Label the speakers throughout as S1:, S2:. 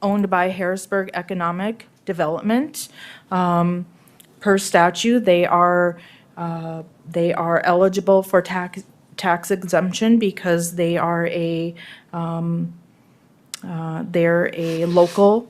S1: owned by Harrisburg Economic Development. Um, Per statute, they are, uh, they are eligible for tax, tax exemption because they are a, um, uh, they're a local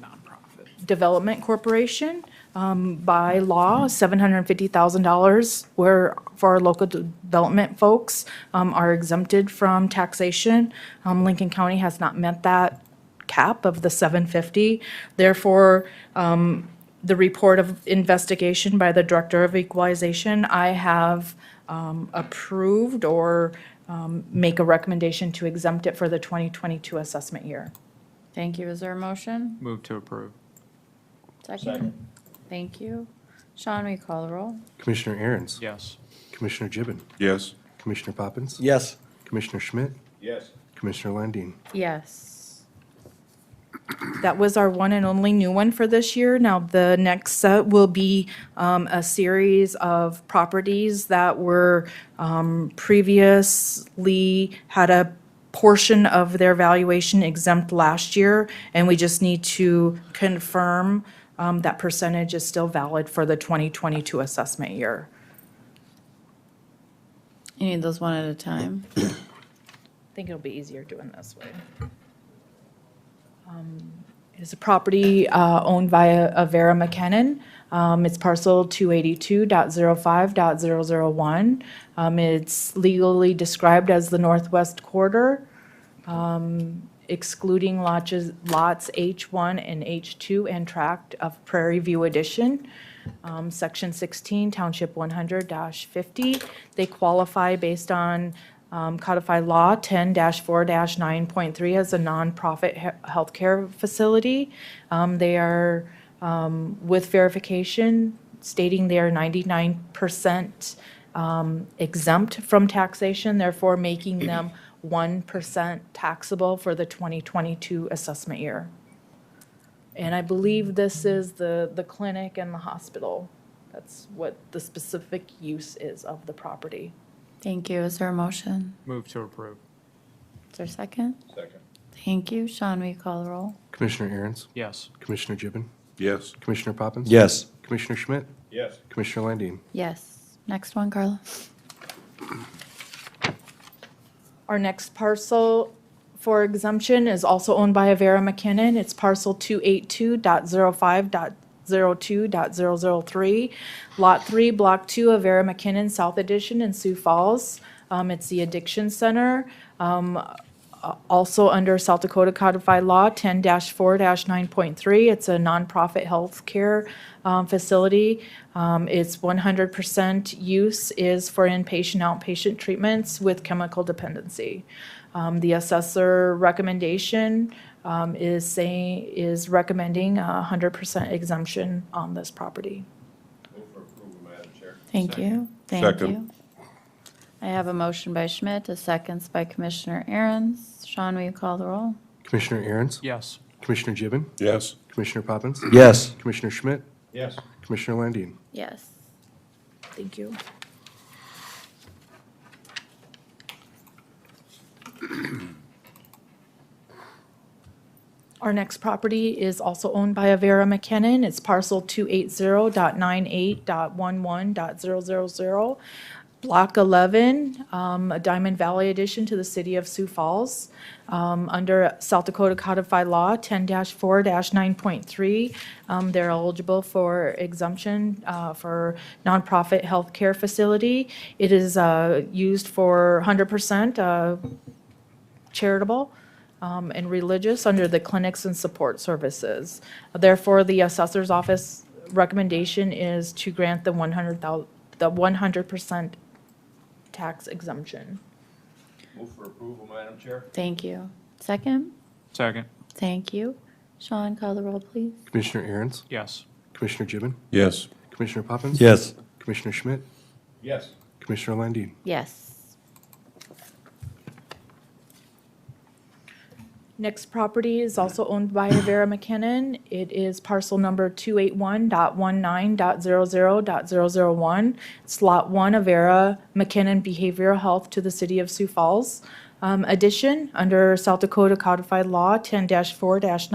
S1: development corporation. Um, By law, $750,000 where, for our local de- development folks, um, are exempted from taxation. Um, Lincoln County has not met that cap of the 750. Therefore, um, the report of investigation by the Director of Equalization, I have um, approved or um, make a recommendation to exempt it for the 2022 assessment year.
S2: Thank you. Is there a motion?
S3: Move to approve.
S2: Second. Thank you. Sean, we call the roll?
S4: Commissioner Aaron's.
S3: Yes.
S4: Commissioner Gibbon.
S5: Yes.
S4: Commissioner Poppins.
S6: Yes.
S4: Commissioner Schmidt.
S5: Yes.
S4: Commissioner Landine.
S2: Yes.
S1: That was our one and only new one for this year. Now, the next set will be um, a series of properties that were um, previously had a portion of their valuation exempt last year, and we just need to confirm um, that percentage is still valid for the 2022 assessment year.
S2: You need those one at a time.
S1: I think it'll be easier doing this way. Um, It is a property uh, owned by a a Vera McKinnon. Um, It's parcel 282.05.001. Um, It's legally described as the northwest quarter, um, excluding lodges- lots H1 and H2 and tract of Prairie View Edition. Um, Section 16, Township 100-50. They qualify based on um, codified law 10-4-9.3 as a nonprofit he- healthcare facility. Um, They are, um, with verification stating they are 99% um, exempt from taxation, therefore making them 1% taxable for the 2022 assessment year. And I believe this is the, the clinic and the hospital. That's what the specific use is of the property.
S2: Thank you. Is there a motion?
S3: Move to approve.
S2: Is there a second?
S5: Second.
S2: Thank you. Sean, we call the roll?
S4: Commissioner Aaron's.
S3: Yes.
S4: Commissioner Gibbon.
S5: Yes.
S4: Commissioner Poppins.
S6: Yes.
S4: Commissioner Schmidt.
S5: Yes.
S4: Commissioner Landine.
S2: Yes. Next one, Carla.
S1: Our next parcel for exemption is also owned by Avera McKinnon. It's parcel 282.05.02.003, Lot 3, Block 2, Avera McKinnon South Edition in Sioux Falls. Um, It's the Addiction Center, um, a- also under South Dakota Codified Law 10-4-9.3. It's a nonprofit healthcare um, facility. Um, Its 100% use is for inpatient, outpatient treatments with chemical dependency. Um, The assessor recommendation um, is saying, is recommending a 100% exemption on this property.
S2: Thank you. Thank
S5: Second.
S2: you. I have a motion by Schmidt, a second by Commissioner Aaron's. Sean, will you call the roll?
S4: Commissioner Aaron's.
S3: Yes.
S4: Commissioner Gibbon.
S5: Yes.
S4: Commissioner Poppins.
S6: Yes.
S4: Commissioner Schmidt.
S5: Yes.
S4: Commissioner Landine.
S2: Yes.
S1: Thank you. Our next property is also owned by Avera McKinnon. It's parcel 280.98.11.000, Block 11, um, a Diamond Valley addition to the city of Sioux Falls. Um, Under South Dakota Codified Law 10-4-9.3, um, they're eligible for exemption uh, for nonprofit healthcare facility. It is uh, used for 100% uh, charitable um, and religious under the clinics and support services. Therefore, the assessor's office recommendation is to grant the 100,000, the 100% tax exemption.
S5: Move for approval, Madam Chair.
S2: Thank you. Second?
S3: Second.
S2: Thank you. Sean, call the roll, please.
S4: Commissioner Aaron's.
S3: Yes.
S4: Commissioner Gibbon.
S5: Yes.
S4: Commissioner Poppins.
S6: Yes.
S4: Commissioner Schmidt.
S5: Yes.
S4: Commissioner Landine.
S2: Yes.
S1: Next property is also owned by Rivera McKinnon. It is parcel number 281.19.00.001. It's Lot 1 of Vera McKinnon Behavioral Health to the City of Sioux Falls. Um, Addition, under South Dakota Codified Law 10-4-9.